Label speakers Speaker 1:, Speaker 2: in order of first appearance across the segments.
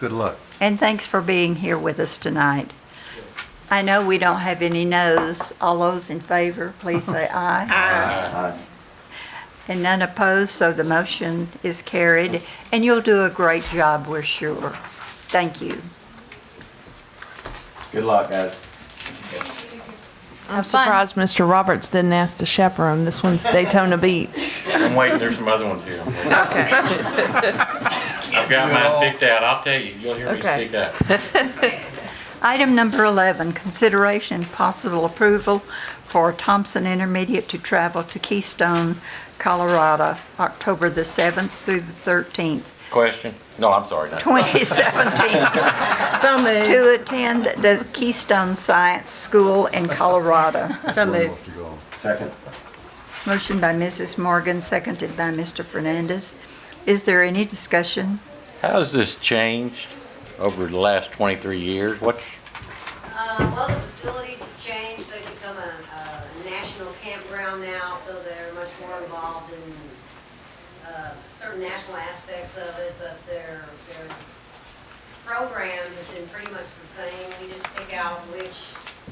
Speaker 1: Good luck.
Speaker 2: And thanks for being here with us tonight. I know we don't have any noes. All those in favor, please say aye. Aye. And none opposed, so the motion is carried. And you'll do a great job, we're sure. Thank you.
Speaker 3: Good luck, guys.
Speaker 4: I'm
Speaker 2: Have fun.
Speaker 4: surprised Mr. Roberts didn't ask to chaperone. This one's Daytona Beach.
Speaker 5: I'm waiting, there's some other ones here. I'm waiting. I've got mine picked out, I'll tell you, you'll hear me
Speaker 4: Okay.
Speaker 5: speak out.
Speaker 2: Item number 11, consideration and possible approval for Thompson Intermediate to travel to Keystone, Colorado, October the 7th through the 13th,
Speaker 5: Question? No, I'm sorry, not.
Speaker 2: 2017.
Speaker 6: So moved.
Speaker 2: to attend the Keystone Science School in Colorado.
Speaker 6: So moved.
Speaker 1: Off you go.
Speaker 3: Second.
Speaker 2: Motion by Mrs. Morgan, seconded by Mr. Fernandez. Is there any discussion?
Speaker 5: How's this changed over the last 23 years? What's,
Speaker 7: Uh, Well, the facilities have changed, they've become a a national campground now, so they're much more involved in uh, certain national aspects of it, but their, their program has been pretty much the same. We just pick out which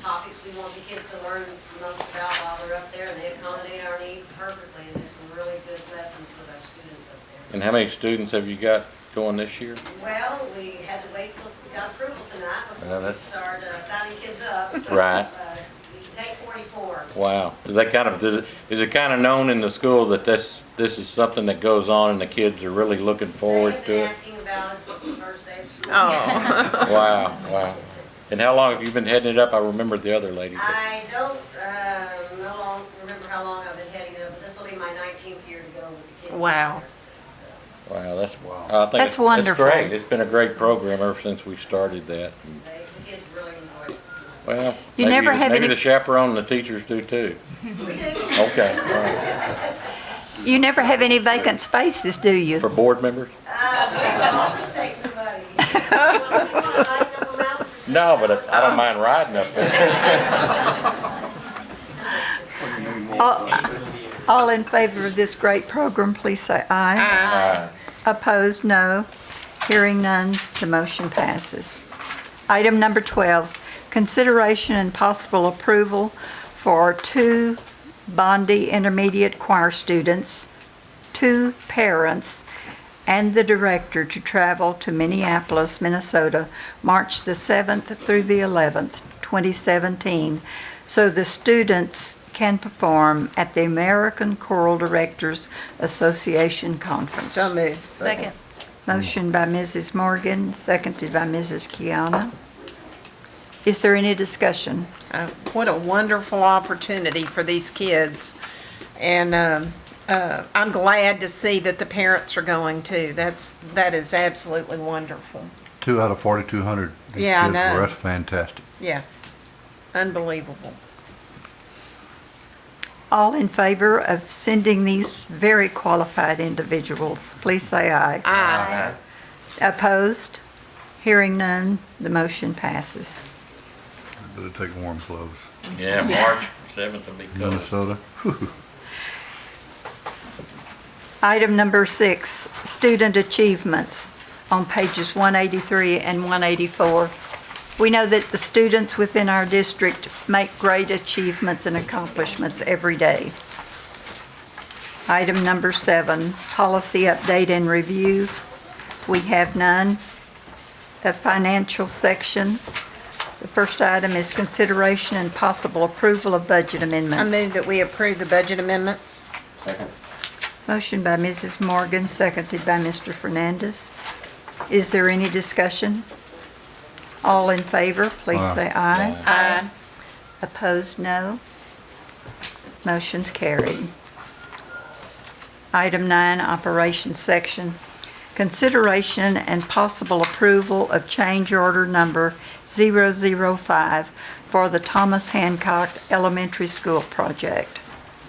Speaker 7: topics we want the kids to learn most about while they're up there, and they accommodate our needs perfectly, and there's some really good lessons with our students up there.
Speaker 5: and how many students have you got going this year?
Speaker 7: Well, we had to wait till we got approval tonight
Speaker 5: Yeah,
Speaker 7: before we
Speaker 5: that's-
Speaker 7: started uh, signing kids up. So,
Speaker 5: Right.
Speaker 7: uh, We can take 44.
Speaker 5: Wow. Is that kind of, does it- is it kind of known in the school that this, this is something that goes on and the kids are really looking
Speaker 7: They
Speaker 5: forward
Speaker 7: have
Speaker 5: to
Speaker 7: been
Speaker 5: it?
Speaker 7: asking about it since the first day of school.
Speaker 6: Oh.
Speaker 5: Wow, wow. And how long have you been heading it up? I remember the other lady. but-
Speaker 7: I don't, um, no long, remember how long I've been heading up, but this will be my 19th year to go with the kids.
Speaker 6: Wow.
Speaker 7: So-
Speaker 5: Wow, that's,
Speaker 1: Wow.
Speaker 5: I think
Speaker 2: That's
Speaker 5: it's-
Speaker 2: wonderful.
Speaker 5: It's great. It's been a great program ever since we started that.
Speaker 7: They, the kids really enjoy it.
Speaker 5: Well,
Speaker 2: You
Speaker 5: maybe,
Speaker 2: never have
Speaker 5: maybe
Speaker 2: any-
Speaker 5: the chaperone and the teachers do too. Okay, all right.
Speaker 2: You never have any vacant spaces, do you?
Speaker 5: For board members?
Speaker 7: I'll just take somebody. You want to lighten up a mountain for
Speaker 5: No, but I don't mind riding up there.
Speaker 2: All all in favor of this great program, please say aye.
Speaker 5: Aye.
Speaker 2: Opposed, no. Hearing none, the motion passes. Item number 12, consideration and possible approval for two Bondi Intermediate Choir students, two parents, and the director to travel to Minneapolis, Minnesota, March the 7th through the 11th, 2017, so the students can perform at the American Choral Directors Association Conference.
Speaker 6: So moved.
Speaker 4: Second.
Speaker 2: Motion by Mrs. Morgan, seconded by Mrs. Kiana. Is there any discussion?
Speaker 6: Uh, What a wonderful opportunity for these kids. And um, uh, I'm glad to see that the parents are going too. That's, that is absolutely wonderful.
Speaker 1: Two out of 4,200. These
Speaker 6: Yeah,
Speaker 1: kids
Speaker 6: I
Speaker 1: were-
Speaker 6: know.
Speaker 1: That's fantastic.
Speaker 6: Yeah. Unbelievable.
Speaker 2: All in favor of sending these very qualified individuals, please say aye.
Speaker 6: Aye.
Speaker 2: Opposed? Hearing none, the motion passes.
Speaker 1: Better take warm clothes.
Speaker 5: Yeah, March 7th will be good.
Speaker 1: Minnesota.
Speaker 2: Item number six, student achievements on pages 183 and 184. We know that the students within our district make great achievements and accomplishments every day. Item number seven, policy update and review. We have none. The financial section, the first item is consideration and possible approval of budget
Speaker 6: I
Speaker 2: amendments.
Speaker 6: move that we approve the budget amendments.
Speaker 3: Second.
Speaker 2: Motion by Mrs. Morgan, seconded by Mr. Fernandez. Is there any discussion? All in favor, please
Speaker 1: Aye.
Speaker 2: say aye. Aye. Opposed, no. Motion's carried. Item nine, Operations Section. Consideration and possible approval of change order number 005 for the Thomas Hancock Elementary School project.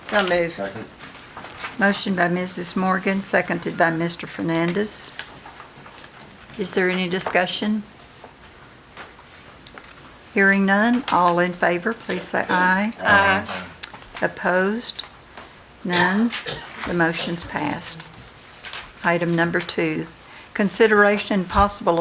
Speaker 6: So moved.
Speaker 3: Second.
Speaker 2: Motion by Mrs. Morgan, seconded by Mr. Fernandez. Is there any discussion? Hearing none, all in favor, please say aye.
Speaker 6: Aye.
Speaker 2: Opposed? None. The motion's passed. Item number two, consideration and possible